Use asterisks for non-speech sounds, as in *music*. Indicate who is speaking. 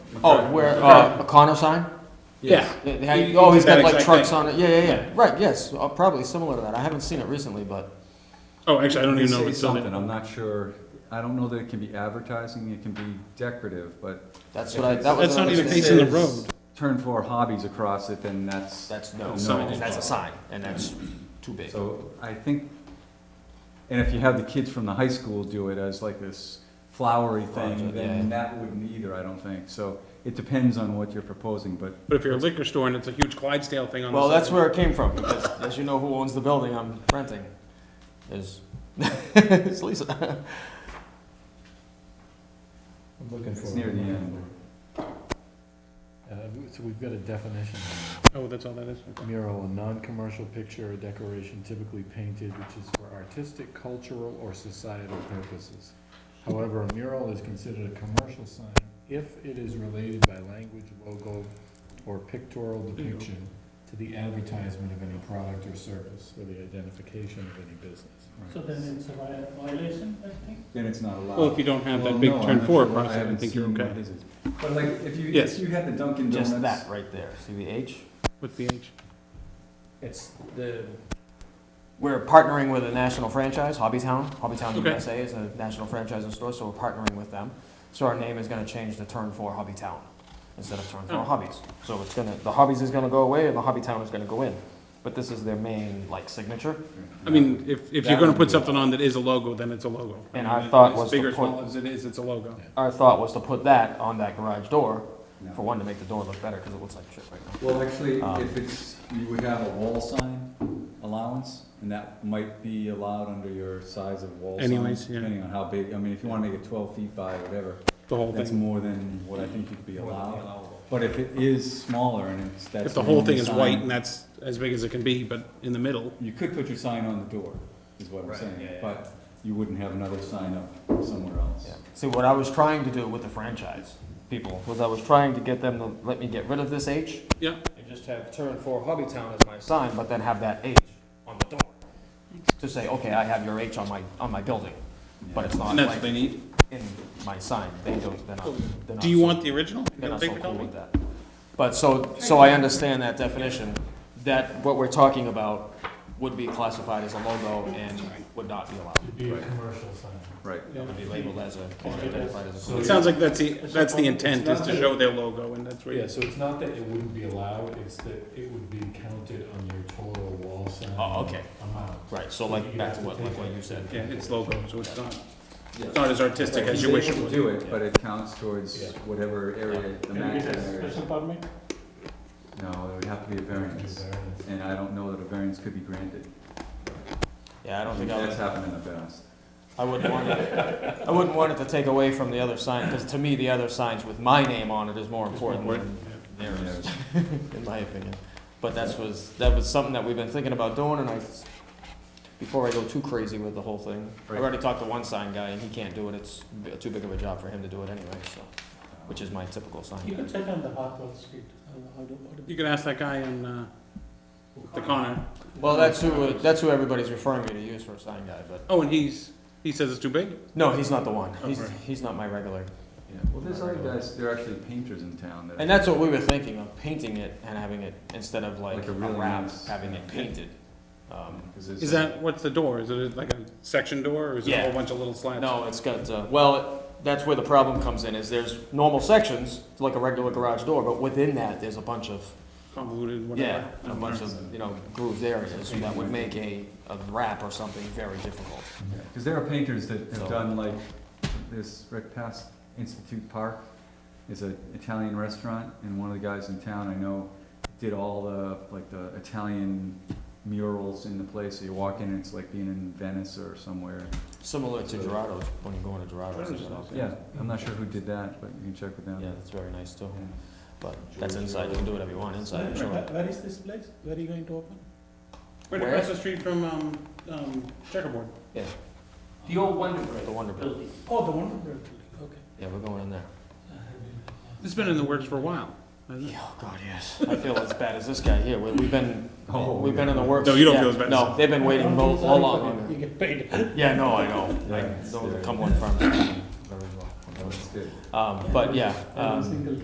Speaker 1: Oh, where, uh, a Connor sign?
Speaker 2: Yeah.
Speaker 1: They- they had-
Speaker 2: You- you
Speaker 1: Oh, he's
Speaker 2: did that
Speaker 1: got like
Speaker 2: exact
Speaker 1: trucks
Speaker 2: thing.
Speaker 1: on it, yeah, yeah, yeah, right, yes, uh, probably similar to that, I haven't seen it recently, but,
Speaker 2: Oh, actually, I don't
Speaker 3: They
Speaker 2: even know
Speaker 3: say
Speaker 2: what's on
Speaker 3: something,
Speaker 2: it.
Speaker 3: I'm not sure, I don't know that it can be advertising, it can be decorative, but
Speaker 1: That's what I- that was
Speaker 2: That's not even
Speaker 1: It
Speaker 2: facing the
Speaker 3: says-
Speaker 2: road.
Speaker 3: turn four hobbies across it, then that's.
Speaker 1: that's, no,
Speaker 2: Signage.
Speaker 1: that's a sign, and that's too big.
Speaker 3: So I think, and if you have the kids from the high school do it as like this flowery thing,
Speaker 1: Project, yeah.
Speaker 3: then that wouldn't either, I don't think. So it depends on what you're proposing, but
Speaker 2: But if you're a liquor store and it's a huge Clydesdale thing on the
Speaker 1: Well,
Speaker 2: side-
Speaker 1: that's where it came from, because as you know who owns the building I'm renting, is, *laughs* it's Lisa.
Speaker 4: I'm looking for.
Speaker 3: it's near the end.
Speaker 4: Uh, So we've got a definition,
Speaker 2: Oh, that's all that is?
Speaker 4: mural, a non-commercial picture or decoration typically painted which is for artistic, cultural, or societal purposes. However, a mural is considered a commercial sign if it is related by language, logo, or pictorial depiction to the advertisement of any product or service or the identification of any business.
Speaker 5: So then it's a vi- violation, I think?
Speaker 3: Then it's not allowed.
Speaker 2: Well, if you don't have
Speaker 3: Well,
Speaker 2: that big
Speaker 3: no, I'm
Speaker 2: turn
Speaker 3: not
Speaker 2: four
Speaker 3: sure.
Speaker 2: across it, I
Speaker 3: haven't
Speaker 2: think you're
Speaker 3: seen what
Speaker 2: okay.
Speaker 3: his is. But like, if you,
Speaker 2: Yes.
Speaker 3: if you had the Dunkin'
Speaker 1: Just that
Speaker 3: Donuts,
Speaker 1: right there, see the H?
Speaker 2: What's the age?
Speaker 1: It's the. We're partnering with a national franchise, Hobbytown. Hobbytown
Speaker 2: Okay.
Speaker 1: USA is a national franchise and store, so we're partnering with them. So our name is gonna change to Turn Four Hobbytown instead of Turn
Speaker 2: Oh.
Speaker 1: Four Hobbies. So it's gonna, the Hobbies is gonna go away and the Hobbytown is gonna go in. But this is their main, like, signature.
Speaker 2: I mean, if, if you're
Speaker 3: That
Speaker 2: gonna
Speaker 3: would
Speaker 2: put
Speaker 3: be-
Speaker 2: something on that is a logo, then it's a logo. I
Speaker 1: And
Speaker 2: mean,
Speaker 1: our thought
Speaker 2: as
Speaker 1: was to
Speaker 2: Big or
Speaker 1: put-
Speaker 2: small as it is, it's a logo.
Speaker 1: Our thought was to put that on that garage door,
Speaker 3: No.
Speaker 1: for one, to make the door look better, because it looks like shit right now.
Speaker 3: Well, actually,
Speaker 1: Um,
Speaker 3: if it's, you would have a wall sign allowance, and that might be allowed under your size of wall sign.
Speaker 2: Anyways, yeah.
Speaker 3: Depending on how big, I mean, if you wanna make it twelve feet by whatever,
Speaker 2: The whole
Speaker 3: that's
Speaker 2: thing.
Speaker 3: more than what I think you could be allowed. But if it is smaller and it's, that's.
Speaker 2: If the whole
Speaker 3: only
Speaker 2: thing is
Speaker 3: sign,
Speaker 2: white and that's as big as it can be, but in the middle,
Speaker 3: You could put your sign on the door, is what I'm saying, but you wouldn't have another sign up somewhere else.
Speaker 1: Yeah. See, what I was trying to do with the franchise people was I was trying to get them to let me get rid of this H.
Speaker 2: Yeah.
Speaker 1: And just have turn for Hobbytown as my sign, but then have that H on the door. To say, okay, I have your H on my, on my building, but it's not
Speaker 2: and that's what they
Speaker 1: like
Speaker 2: need.
Speaker 1: in my sign. They don't, they're not, they're not.
Speaker 2: Do you
Speaker 1: so-
Speaker 2: want the original? You
Speaker 1: they're
Speaker 2: don't
Speaker 1: not
Speaker 2: think
Speaker 1: so
Speaker 2: they
Speaker 1: cool
Speaker 2: told me?
Speaker 1: with that. But so, so I understand that definition, that what we're talking about would be classified as a logo and would not be allowed.
Speaker 4: Be a commercial sign.
Speaker 3: Right.
Speaker 1: It would be labeled as a, or identified as a.
Speaker 4: So-
Speaker 2: It sounds like that's the, that's the intent, is
Speaker 4: not
Speaker 2: to
Speaker 4: that-
Speaker 2: show their logo and that's where
Speaker 4: Yeah,
Speaker 2: you.
Speaker 4: so it's not that it wouldn't be allowed, it's that it would be counted on your total wall sign.
Speaker 1: Oh, okay.
Speaker 4: Amount.
Speaker 1: Right, so like, back to what, like what you said.
Speaker 2: Yeah, it's logo, so it's not, it's not as artistic
Speaker 3: Right,
Speaker 2: as
Speaker 3: he's
Speaker 2: you wish it
Speaker 3: able to
Speaker 2: would.
Speaker 3: Do it, but it counts towards
Speaker 4: Yeah.
Speaker 3: whatever area, the
Speaker 5: Can we get
Speaker 3: maximum
Speaker 5: a
Speaker 3: area.
Speaker 5: special permit?
Speaker 3: No, there would have to be a variance, and I don't know that a variance could be granted.
Speaker 1: Yeah, I don't think I
Speaker 3: That's
Speaker 1: would,
Speaker 3: happened in the past.
Speaker 1: I wouldn't want it, I wouldn't want it to take away from the other sign, because to me, the other signs with my name on it is more important than theirs, in my opinion. But that's was, that was something that we've been thinking about doing, and I, before I go too crazy with the whole thing, I
Speaker 3: Right.
Speaker 1: already talked to one sign guy, and he can't do it, it's b- too big of a job for him to do it anyway, so, which is my typical sign
Speaker 5: You
Speaker 1: guy.
Speaker 5: can check on the Hartwell Street. I don't- I don't Oh, want to-
Speaker 2: You could ask that guy in, uh, the corner.
Speaker 1: Well, that's who, that's who everybody's referring me to use for a sign guy, but,
Speaker 2: Oh, and he's, he says it's too big?
Speaker 1: no, he's not the one,
Speaker 2: Oh,
Speaker 1: he's,
Speaker 2: right.
Speaker 1: he's not my regular
Speaker 3: Yeah, well, there's other guys, there are actually painters in town that.
Speaker 1: And that's what we were thinking of painting it and having it instead of like,
Speaker 3: Like
Speaker 1: a
Speaker 3: a really
Speaker 1: wrap,
Speaker 3: nice-
Speaker 1: having it painted. Um,
Speaker 2: Is that, what's the door? Is it like a section door or is it a
Speaker 1: Yeah.
Speaker 2: whole bunch of little slats?
Speaker 1: no, it's got uh, well. It, that's where the problem comes in. Is there's normal sections like a regular garage door, but within that there's a bunch of
Speaker 2: Convoluted, whatever.
Speaker 1: yeah, a bunch of you know grooved areas that would make a, a wrap or something very difficult.
Speaker 3: Because there are painters that
Speaker 1: So-
Speaker 3: have done like this right past Institute Park is an Italian restaurant, and one of the guys in town I know did all the like the Italian murals in the place. So you walk in, and it's like being in Venice or somewhere.
Speaker 1: Similar to Gerardo's when you go into Gerardo's.
Speaker 2: Gerardo's
Speaker 1: it's all-
Speaker 2: nice.
Speaker 3: Yeah, I'm not sure who did that, but you can check with them.
Speaker 1: yeah, that's very nice too.
Speaker 3: Yeah.
Speaker 1: But that's inside. You can do whatever you want inside. I'm
Speaker 5: Where-
Speaker 1: sure.
Speaker 5: Where is this place? Where are you going to open?
Speaker 2: Right
Speaker 1: Where?
Speaker 2: across the street from, um, um, checkerboard.
Speaker 1: Yeah,
Speaker 5: The old Wonder Bread.
Speaker 1: the Wonder Bread.
Speaker 5: Oh, the Wonder Bread building, okay.
Speaker 1: Yeah, we're going in there.
Speaker 2: It's been in the works for a while. hasn't it?
Speaker 1: Yeah, Oh, God, yes. I feel as bad as this guy here. We- We've been,
Speaker 3: Oh,
Speaker 1: we've been in the
Speaker 3: yeah.
Speaker 1: works.
Speaker 2: No, you don't
Speaker 1: yeah,
Speaker 2: feel as bad as
Speaker 1: No,
Speaker 2: this.
Speaker 1: they've been waiting
Speaker 5: Don't
Speaker 1: all,
Speaker 5: feel sorry
Speaker 1: all long
Speaker 5: for them. You
Speaker 1: longer.
Speaker 5: get paid.
Speaker 1: Yeah, no, I know. I
Speaker 3: Yeah, it's
Speaker 1: know the
Speaker 3: scary.
Speaker 1: Cumberland Farms very well.
Speaker 3: That's good.
Speaker 1: Um, but yeah,
Speaker 5: Every
Speaker 1: um,
Speaker 5: single